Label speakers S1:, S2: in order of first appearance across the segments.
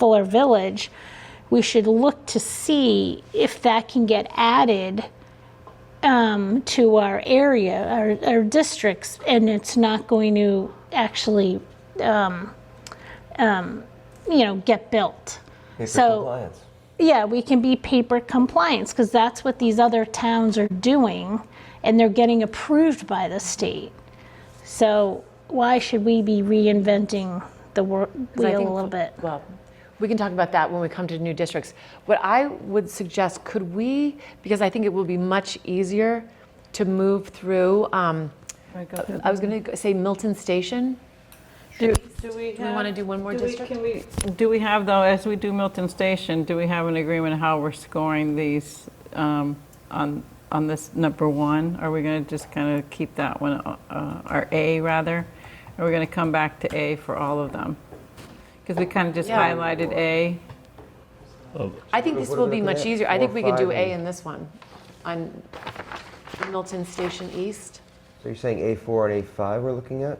S1: Fuller Village, we should look to see if that can get added um, to our area, our, our districts, and it's not going to actually, um, um, you know, get built.
S2: Paper
S1: So-
S2: compliance.
S1: Yeah, we can be paper compliance because that's what these other towns are doing and they're getting approved by the state. So why should we be reinventing the wor-
S3: I
S1: wheel
S3: think-
S1: a little bit?
S3: Well, we can talk about that when we come to new districts. What I would suggest, could we, because I think it will be much easier to move through, um, I was going to say Milton Station.
S4: Do do we
S3: we wanna
S4: have-
S3: do one more
S4: we-
S3: district?
S4: Can we, do we have, though, as we do Milton Station, do we have an agreement how we're scoring these um, on, on this number one? Are we going to just kind of keep that one, uh, or A, rather? Are we going to come back to A for all of them? Because we kind of just
S3: Yeah.
S4: highlighted A.
S3: I think this
S2: What are we
S3: will be
S2: looking
S3: much
S2: at?
S3: easier. I
S2: Four,
S3: think we could do
S2: five,
S3: A
S2: and-
S3: in this one, on Milton Station East.
S2: So you're saying A4 and A5 we're looking at?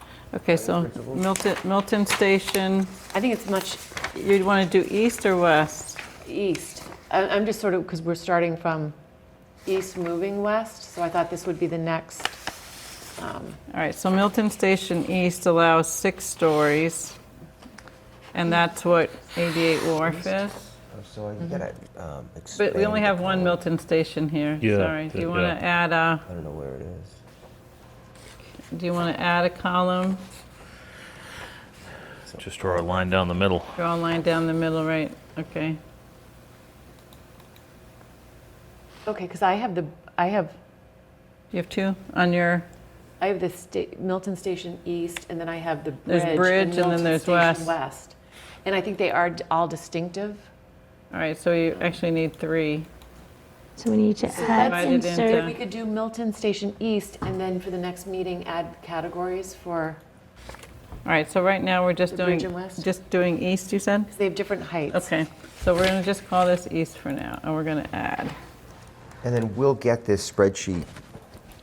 S2: Oh,
S4: Okay, so Milton, Milton Station,
S3: I think it's much
S4: you'd want to do east or west?
S3: east. I- I'm just sort of, because we're starting from east moving west, so I thought this would be the next.
S4: All right, so Milton Station East allows six stories, and that's what 88 Wharf is?
S2: Oh, So
S3: Mm-hmm.
S2: you gotta um, expand.
S4: But we only
S2: the
S4: have one
S2: column.
S4: Milton Station here,
S5: Yeah,
S4: sorry. Do you
S5: yeah.
S4: want to add a,
S2: I don't know where it is.
S4: do you want to add a column?
S5: Just draw a line down the middle.
S4: Draw a line down the middle, right? Okay.
S3: Okay, because I have the, I have
S4: You have two on your,
S3: I have the sta- Milton Station East, and then I have the bridge.
S4: There's bridge, and then
S3: Milton
S4: there's
S3: Station
S4: west.
S3: And I think they are d- all distinctive.
S4: all right, so you actually need three.
S1: So we need to add
S4: that's- Divided
S1: insert.
S4: into-
S3: We could do Milton Station East, and then for the next meeting, add categories for,
S4: All right, so right now, we're just
S3: The bridge
S4: doing,
S3: and west?
S4: just doing east, you said?
S3: because they have different heights.
S4: Okay, so we're going to just call this east for now, and we're going to add.
S2: And then we'll get this spreadsheet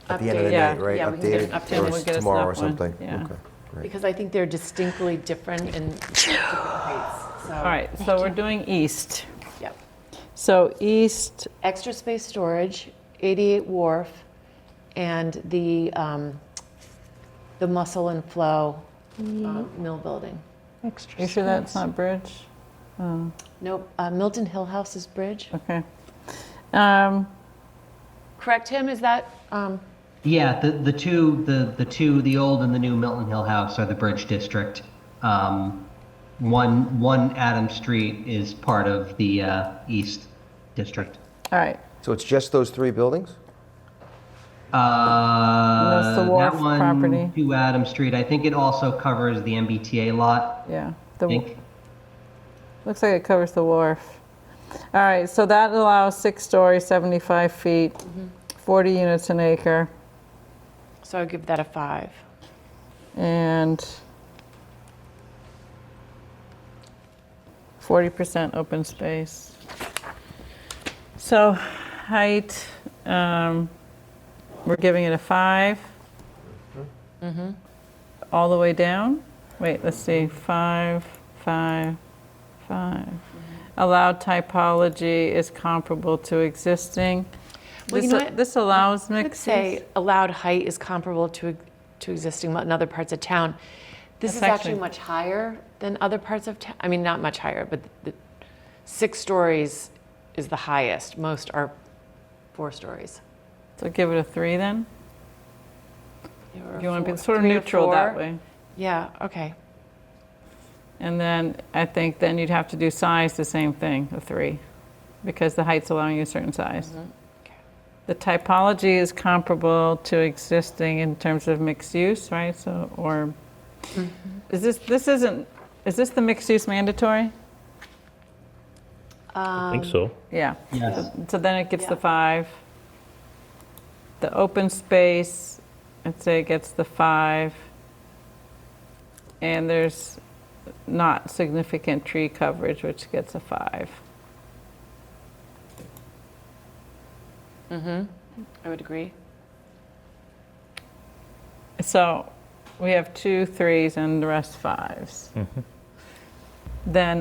S2: at the end of the
S3: Updated.
S4: Yeah,
S2: night, right?
S3: yeah, we can get an
S2: Updated
S3: update.
S2: or
S3: We'll
S2: s-
S4: get a
S2: tomorrow or
S4: snap one,
S2: something.
S4: yeah.
S2: Okay, great.
S3: Because I think they're distinctly different in different heights, so.
S4: All right, so we're doing east.
S3: Yep.
S4: So east,
S3: Extra space storage, 88 Wharf, and the, um, the Muscle and Flow um, Mill Building.
S1: Extra
S4: you sure that's not bridge?
S3: Nope, uh, Milton Hill House's Bridge.
S4: Okay. Um,
S3: Correct him, is that, um,
S6: Yeah, the, the two, the, the two, the old and the new Milton Hill House are the Bridge District. Um, one, one Adam Street is part of the, uh, East District.
S4: All right,
S2: So it's just those three buildings?
S6: Uh,
S4: That's the Wharf
S6: that one,
S4: property.
S6: Two Adam Street, I think it also covers the MBTA lot,
S4: yeah.
S6: I
S4: The,
S6: think.
S4: looks like it covers the wharf. All right, so that allows six stories, 75 feet, 40 units an acre,
S3: so I'll give that a five.
S4: and 40% open space. So height, um, we're giving it a five.
S3: Mm-hmm.
S4: All the way down? Wait, let's see, five, five, five.
S3: Mm-hmm.
S4: Allowed typology is comparable to existing.
S3: Well, you
S4: This
S3: know what?
S4: this allows
S3: I would
S4: mixes.
S3: say allowed height is comparable to, to existing in other parts of town. This is
S4: That's
S3: actually
S4: actually-
S3: much higher than other parts of town, I mean, not much higher, but the, six stories is the highest. Most are four stories.
S4: So give it a three then?
S3: Yeah, or
S4: You want to
S3: four-
S4: be sort of
S3: three or
S4: neutral that
S3: four.
S4: way.
S3: Yeah, okay.
S4: And then I think then you'd have to do size the same thing, a three, because the height's allowing you a certain size.
S3: Okay.
S4: The typology is comparable to existing in terms of mixed use, right? So, or is this this isn't is this the mixed use mandatory?
S5: I think so.
S4: Yeah.
S6: Yes.
S4: So then it gets the
S3: Yeah.
S4: five. The open space, I'd say it gets the five. And there's not significant tree coverage, which gets a five.
S3: I would agree.
S4: So we have two threes and the rest fives. then